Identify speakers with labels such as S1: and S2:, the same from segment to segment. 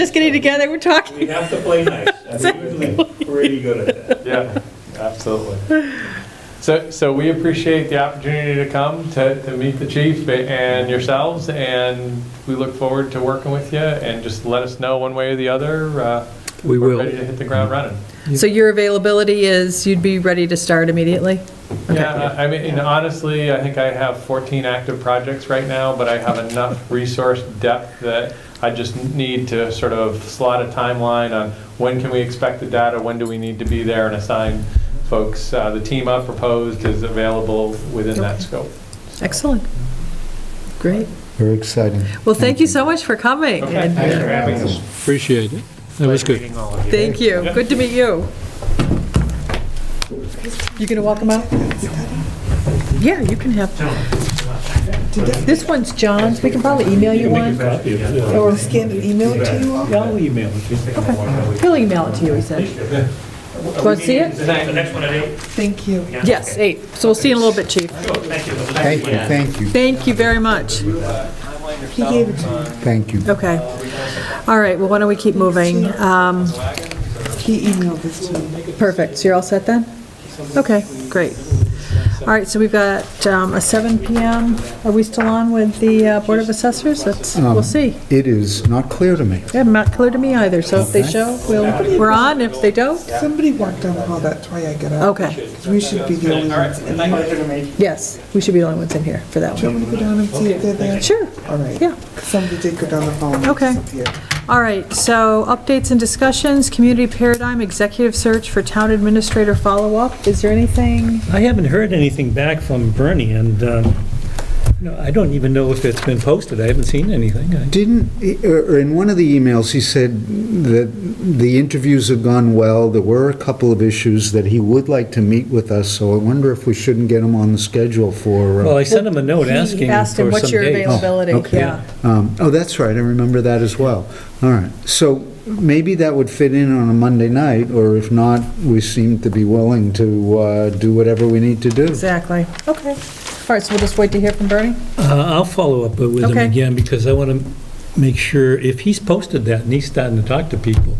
S1: Just getting together, we're
S2: We
S1: talking.
S2: have to play nice, and we're usually pretty good at that.
S3: Yeah, absolutely. So, so we appreciate the opportunity to come to, to meet the chief and yourselves, and we look forward to working with you, and just let us know one way or the other. uh,
S4: We
S3: we're
S4: will.
S3: Ready to hit the ground running.
S1: So your availability is, you'd be ready to start immediately?
S3: Yeah, I I mean, and honestly, I think I have 14 active projects right now, but I have enough resource depth that I just need to sort of slot a timeline on when can we expect the data, when do we need to be there and assign folks. Uh, The team I've proposed is available within that
S1: Okay.
S3: scope.
S1: Excellent. Great.
S5: Very exciting.
S1: Well, thank you so much for coming.
S3: Okay,
S1: and
S3: thanks for having us.
S4: Appreciate it. That was
S3: Pleasure
S4: good.
S3: meeting all of you.
S1: Thank you. Good to meet you. You gonna walk them out? Yeah, you can have. This one's John's. We can probably email you one. Or
S6: Scan and email it to you all?
S2: I'll email it.
S1: He'll email it to you, he said. Want to see it?
S2: The next one at eight?
S6: Thank you.
S1: Yes, eight. So we'll see you in a little bit, chief.
S2: Thank you.
S5: Thank you, thank you,
S1: Thank you very much.
S6: He gave it to me.
S5: thank you.
S1: Okay. All right, well, why don't we keep moving? Um,
S6: He emailed this to me.
S1: Perfect, so you're all set then? Okay, great. All right, so we've got um, a 7 PM. Are we still on with the uh, Board of Assessors? That's, we'll see.
S5: It is not clear to me.
S1: They haven't not clear to me either, so if they show, we'll, we're on. If they don't,
S6: Somebody walked down the hall, that's why I got up.
S1: okay.
S6: 'Cause We should be the only ones in here.
S1: Yes, we should be the only ones in here for that
S6: Do you
S1: one.
S6: want me to go down and see if they're there?
S1: Sure,
S6: All right.
S1: yeah.
S6: Somebody did go down the hall. and
S1: Okay.
S6: disappeared.
S1: All right, so updates and discussions, community paradigm, executive search for town administrator follow-up. Is there anything?
S7: I haven't heard anything back from Bernie, and um, no, I don't even know if it's been posted. I haven't seen anything. I-
S5: Didn't, or or in one of the emails, he said that the interviews have gone well, there were a couple of issues that he would like to meet with us, so I wonder if we shouldn't get him on the schedule for,
S7: Well,
S5: uh,
S7: I sent him a note
S1: He
S7: asking
S1: asked him,
S7: for
S1: what's
S7: some
S1: your
S7: dates.
S1: availability?
S5: Oh, okay.
S1: Yeah.
S5: um, oh, that's right, I remember that as well. All right, so maybe that would fit in on a Monday night, or if not, we seem to be willing to uh, do whatever we need to do.
S1: Exactly, okay. All right, so we'll just wait to hear from Bernie?
S7: Uh, I'll follow up with him
S1: Okay.
S7: again, because I want to make sure, if he's posted that and he's starting to talk to people,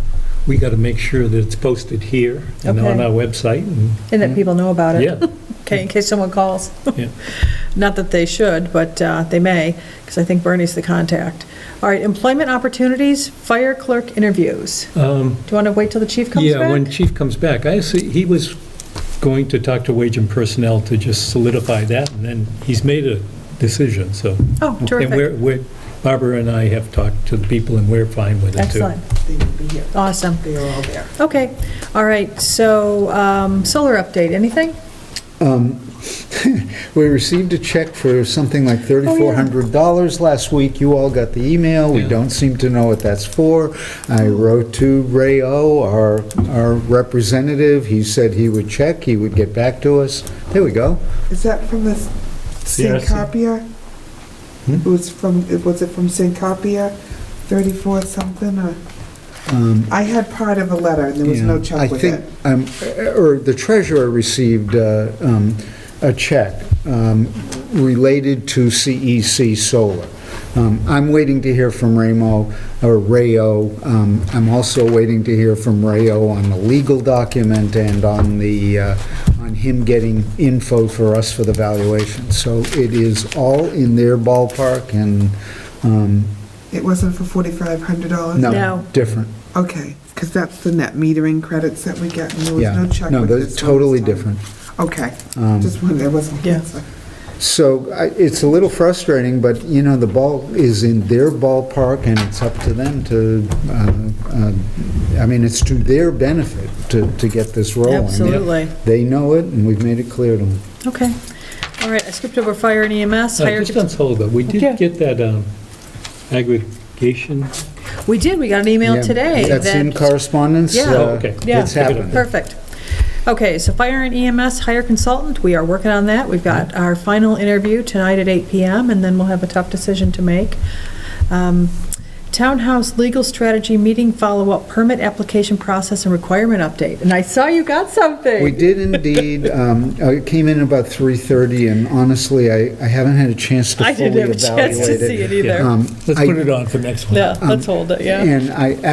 S7: we got to make sure that it's posted here and on
S1: Okay.
S7: our website, and,
S1: And that people know about it?
S7: Mm-hmm. yeah.
S1: Okay, in case someone calls.
S7: Yeah.
S1: Not that they should, but uh, they may, because I think Bernie's the contact. All right, employment opportunities, fire clerk interviews.
S7: Um,
S1: Do you want to wait till the chief comes
S7: Yeah, when
S1: back?
S7: Chief comes back, I see, he was going to talk to Wage and Personnel to just solidify that, and then he's made a decision, so.
S1: Oh,
S7: And
S1: terrific,
S7: we're- we're, Barbara and I have talked to the people, and we're fine with it, too.
S1: excellent,
S6: They would be here.
S1: awesome.
S6: They are all there.
S1: Okay, all right, so um, solar update, anything?
S5: We received a check for something like $3,400 last week. You all got the email. We
S7: Yeah.
S5: don't seem to know what that's for. I wrote to Ray O., our, our representative. He said he would check, he would get back to us. There we go.
S6: Is that from the
S7: CRC.
S6: Syncopia?
S5: Hmm?
S6: It was from, it- was it from Syncopia, 34 something, or? I had part of a letter, and there was no
S5: Um, Yeah.
S6: check with
S5: I
S6: it.
S5: think, um, or the treasurer received uh, um, a check um, related to CEC Solar. Um, I'm waiting to hear from Ramo, or Rayo. Um, I'm also waiting to hear from Rayo on the legal document and on the, uh, on him getting info for us for the valuation. So it is all in their ballpark and, um,
S6: It wasn't for $4,500?
S1: No.
S5: no, different.
S6: Okay, because that's the net metering credits that we get, and there was
S5: Yeah.
S6: no check
S5: No,
S6: with
S5: they're
S6: this one
S5: totally
S6: this time.
S5: different. Um,
S6: Okay, just one, there wasn't.
S1: Yeah.
S5: So I- it's a little frustrating, but, you know, the ball is in their ballpark, and it's up to them to, uh, uh, I mean, it's to their benefit to to get this rolling.
S1: Absolutely.
S5: They know it, and we've made it clear to them.
S1: Okay, all right, I skipped over fire and EMS,
S7: Uh,
S1: higher,
S7: Just on solar, we
S1: Yeah.
S7: did get that um, aggregation.
S1: we did, we got an email
S5: Yeah,
S1: today.
S5: That's
S1: that-
S5: in correspondence.
S1: Yeah.
S5: uh,
S7: Oh, okay.
S1: Yeah.
S5: It's happening.
S1: Perfect. Okay, so fire and EMS hire consultant, we are working on that. We've got our final interview tonight at 8 PM, and then we'll have a tough decision to make. Um, Townhouse legal strategy meeting follow-up permit application process and requirement update. And I saw you got something.
S5: We did indeed. um, uh, It came in about 3:30, and honestly, I I haven't had a chance to
S1: I
S5: fully
S1: didn't have a
S5: evaluate it.
S1: chance to see it either.
S5: Um,
S7: Let's
S5: I-
S7: put it on for next one.
S5: Um,
S1: Yeah, let's hold it, yeah.
S5: And I